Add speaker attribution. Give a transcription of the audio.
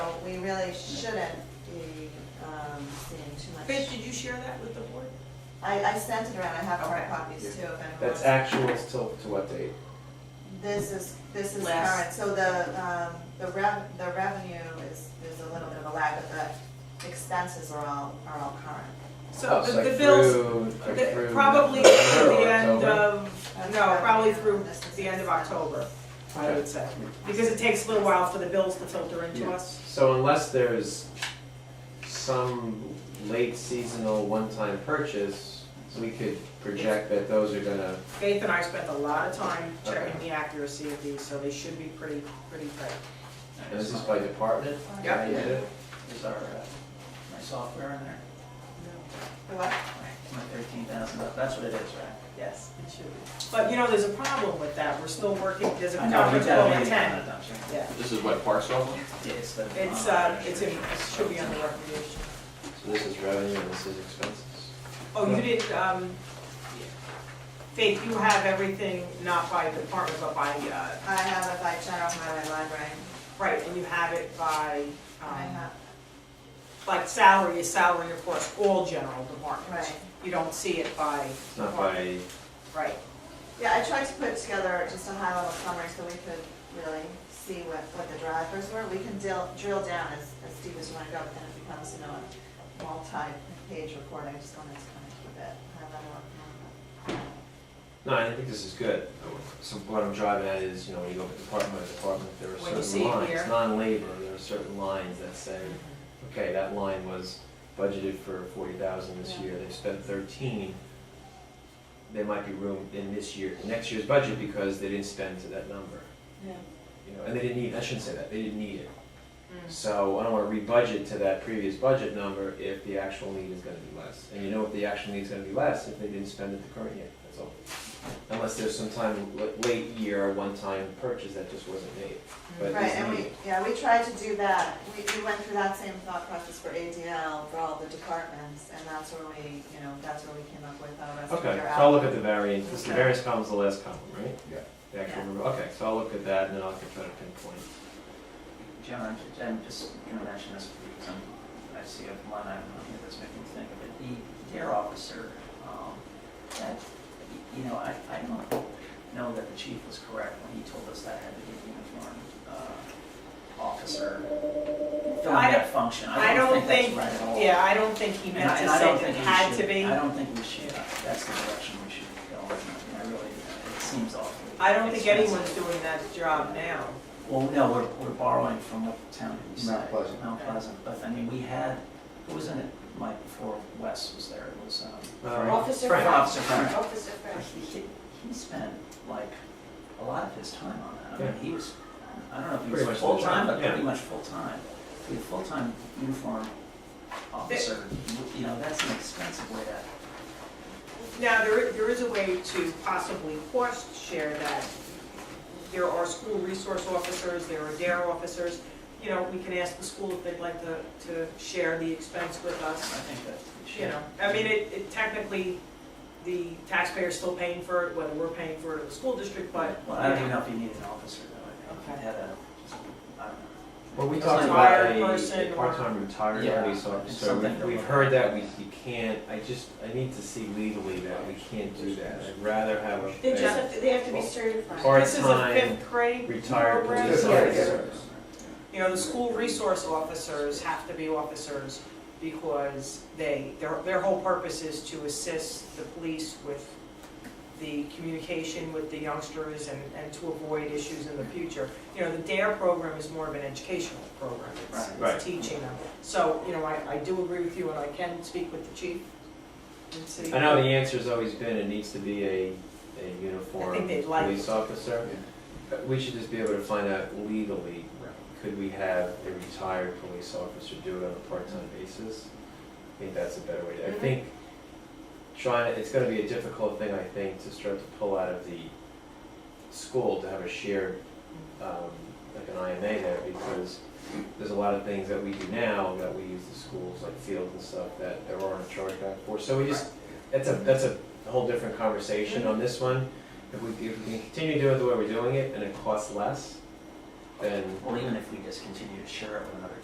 Speaker 1: really shouldn't be um, seeing too
Speaker 2: Faith,
Speaker 1: much.
Speaker 2: did you share that with the board?
Speaker 1: I, I sent it around, I have hard
Speaker 2: Okay.
Speaker 1: copies too, if anyone
Speaker 3: That's
Speaker 1: wants.
Speaker 3: actuals till, to what date?
Speaker 1: This is, this is current,
Speaker 2: Last.
Speaker 1: so the, um, the rev, the revenue is, there's a little bit of a lag, but the expenses are all, are all current.
Speaker 2: So
Speaker 3: Oh,
Speaker 2: the,
Speaker 3: like
Speaker 2: the bills,
Speaker 3: through- like
Speaker 2: the-
Speaker 3: through
Speaker 2: probably
Speaker 3: November
Speaker 2: through
Speaker 3: or
Speaker 2: the end
Speaker 3: October?
Speaker 2: of, no,
Speaker 1: That's
Speaker 2: probably
Speaker 1: right.
Speaker 2: through
Speaker 1: This is-
Speaker 2: the end of October, I
Speaker 3: Okay.
Speaker 2: would say. Because it takes a little while for the bills to filter into
Speaker 3: Yeah.
Speaker 2: us.
Speaker 3: So unless there's some late seasonal one-time purchase, we could project that those are gonna,
Speaker 2: Faith and I spent a lot of time checking
Speaker 3: Okay.
Speaker 2: the accuracy of these, so they should be pretty, pretty tight.
Speaker 3: and this is by department?
Speaker 2: Yep.
Speaker 3: How you did it?
Speaker 4: Is our, uh, my software in there,
Speaker 1: The What?
Speaker 4: my thirteen thousand, that's what it is, right?
Speaker 2: Yes, it should be. But, you know, there's a problem with that, we're still working, there's a
Speaker 4: I know,
Speaker 2: conference
Speaker 4: we got a
Speaker 2: call at
Speaker 4: meeting on
Speaker 2: ten.
Speaker 4: it, I'm sure.
Speaker 2: Yeah,
Speaker 5: This is what, Parks Oval?
Speaker 4: Yeah, It's the.
Speaker 2: it's, uh, it's, in- it should be under recommendation.
Speaker 3: So this is revenue and this is expenses?
Speaker 2: Oh, you didn't, um, Faith, you have everything not by department, but by, uh,
Speaker 1: I have it by general highway library,
Speaker 2: right, and you have it by,
Speaker 1: I
Speaker 2: um,
Speaker 1: have,
Speaker 2: like salary is salary, of course, all general departments.
Speaker 1: right.
Speaker 2: You don't see it by.
Speaker 3: It's not
Speaker 2: department.
Speaker 3: by,
Speaker 2: Right,
Speaker 1: Yeah, I tried to put together just a high level summary so we could really see what, what the drivers were. We can drill, drill down as, as deep as we want to go, but then it becomes, you know, a multi-page report. I just wanted to kind of keep it high level.
Speaker 3: no, I think this is good. So what I'm driving at is, you know, when you look at department by department, there
Speaker 2: When you
Speaker 3: are
Speaker 2: see
Speaker 3: certain
Speaker 2: it
Speaker 3: lines,
Speaker 2: here.
Speaker 3: non-labor, there are certain lines that say, okay, that line was budgeted for forty thousand this
Speaker 1: Yeah.
Speaker 3: year, they've spent thirteen. There might be room in this year, next year's budget because they didn't spend to that number,
Speaker 1: Yeah.
Speaker 3: you know, and they didn't need, I shouldn't say that, they didn't need it.
Speaker 1: Mm-hmm.
Speaker 2: Mm.
Speaker 3: So I don't wanna rebudget to that previous budget number if the actual need is gonna be less. And you know if the actual need is gonna be less if they didn't spend it the current year, that's all. Unless there's some time, l- late year, one-time purchase that just wasn't made, but it
Speaker 1: Right,
Speaker 3: is
Speaker 1: and we,
Speaker 3: needed.
Speaker 1: yeah, we tried to do that. We, we went through that same thought process for ADL for all the departments, and that's where we, you know, that's where we came up with our rest of
Speaker 3: Okay,
Speaker 1: our
Speaker 3: so I'll
Speaker 1: out.
Speaker 3: look at the variance, This- the
Speaker 2: Okay.
Speaker 3: variance column's the last column, right?
Speaker 5: Yeah.
Speaker 3: The actual,
Speaker 1: Yeah.
Speaker 3: number. okay, so I'll look at that and then I'll try to pinpoint.
Speaker 4: Jim, I'm, ju- I'm just gonna mention this because I'm, I see a line item on here that's making me think of it. The dare officer, um, that, y- you know, I, I don't know that the chief was correct when he told us that had to be a uniformed, uh, officer. Filling
Speaker 2: I
Speaker 4: that function,
Speaker 2: I don't think,
Speaker 4: that's right at all.
Speaker 2: yeah, I don't think he
Speaker 4: And
Speaker 2: meant
Speaker 4: I
Speaker 2: to
Speaker 4: and I
Speaker 2: say
Speaker 4: don't
Speaker 2: that it
Speaker 4: think we
Speaker 2: had to
Speaker 4: should-
Speaker 2: be.
Speaker 4: I don't think we should, that's the direction we should go. in. I mean, I really, it seems awfully.
Speaker 2: I don't think
Speaker 4: expensive.
Speaker 2: anyone's doing that job now.
Speaker 4: Well, no, we're, we're borrowing from what the town did decide.
Speaker 5: Mount Pleasant.
Speaker 4: Mount Pleasant, but I mean, we had, who was in it, Mike, before Wes was there, it was, um,
Speaker 3: Uh,
Speaker 6: Officer
Speaker 3: Frank.
Speaker 6: Frank.
Speaker 4: Officer Frank.
Speaker 6: Officer Frank.
Speaker 4: He, he- he spent like a lot of his time on that. I mean,
Speaker 3: Yeah.
Speaker 4: he was, I don't know if he
Speaker 3: Pretty much
Speaker 4: was
Speaker 3: the
Speaker 4: full-time,
Speaker 3: time,
Speaker 4: but pretty
Speaker 3: yeah.
Speaker 4: much full-time. To be a full-time uniform officer, you know, that's an expensive way to
Speaker 2: Now, there, i- there is a way to possibly cost share that. There are school resource officers, there are DARE officers. You know, we can ask the school if they'd like to, to share the expense with
Speaker 4: I
Speaker 2: us,
Speaker 4: think that.
Speaker 2: you know. I mean, it, it technically, the taxpayer's still paying for it, whether we're paying for it or the school district, but.
Speaker 4: Well, I don't even know if you need an officer though. I think
Speaker 2: Okay.
Speaker 4: you had a, just, I don't know.
Speaker 3: Well, we
Speaker 2: It's
Speaker 3: talked
Speaker 2: like
Speaker 3: about
Speaker 2: hired
Speaker 3: a,
Speaker 2: person
Speaker 3: a
Speaker 2: or-
Speaker 3: part-time retired
Speaker 4: Yeah,
Speaker 3: police
Speaker 4: it's
Speaker 3: officer,
Speaker 4: something
Speaker 3: we've,
Speaker 4: to
Speaker 3: we've
Speaker 4: look
Speaker 3: heard that,
Speaker 4: at.
Speaker 3: we, you can't, I just, I need to see legally that we can't do that, I'd rather have a.
Speaker 6: They just have to, they have to be certified.
Speaker 2: This is a
Speaker 3: Part-time
Speaker 2: fifth grade
Speaker 3: retired
Speaker 2: program.
Speaker 3: police
Speaker 2: Yes.
Speaker 3: officer.
Speaker 2: You know, the school resource officers have to be officers because they, their, their whole purpose is to assist the police with the communication with the youngsters and, and to avoid issues in the future. You know, the DARE E program is more of an educational program. It's-
Speaker 3: Right.
Speaker 2: It's teaching them. So, you know, I, I do agree with you and I can speak with the chief and see.
Speaker 3: I know the answer's always been it needs to be a, a
Speaker 2: I
Speaker 3: uniform
Speaker 2: think they'd like
Speaker 3: police officer.
Speaker 5: Yeah.
Speaker 3: But We should just be able to find out legally, could we have a retired police officer do it on a part-time basis? I think that's a better way to, I
Speaker 2: Mhm.
Speaker 3: think trying, it's gonna be a difficult thing, I think, to start to pull out of the school to have a shared, um, like an IMA there because there's a lot of things that we do now that we use the schools, like fields and stuff, that there aren't a charge back for. So we just, that's a, that's a whole different conversation on this one. If we, if we can continue doing it the way we're doing it and it costs less, then
Speaker 4: Well, even if we just continue to share it with another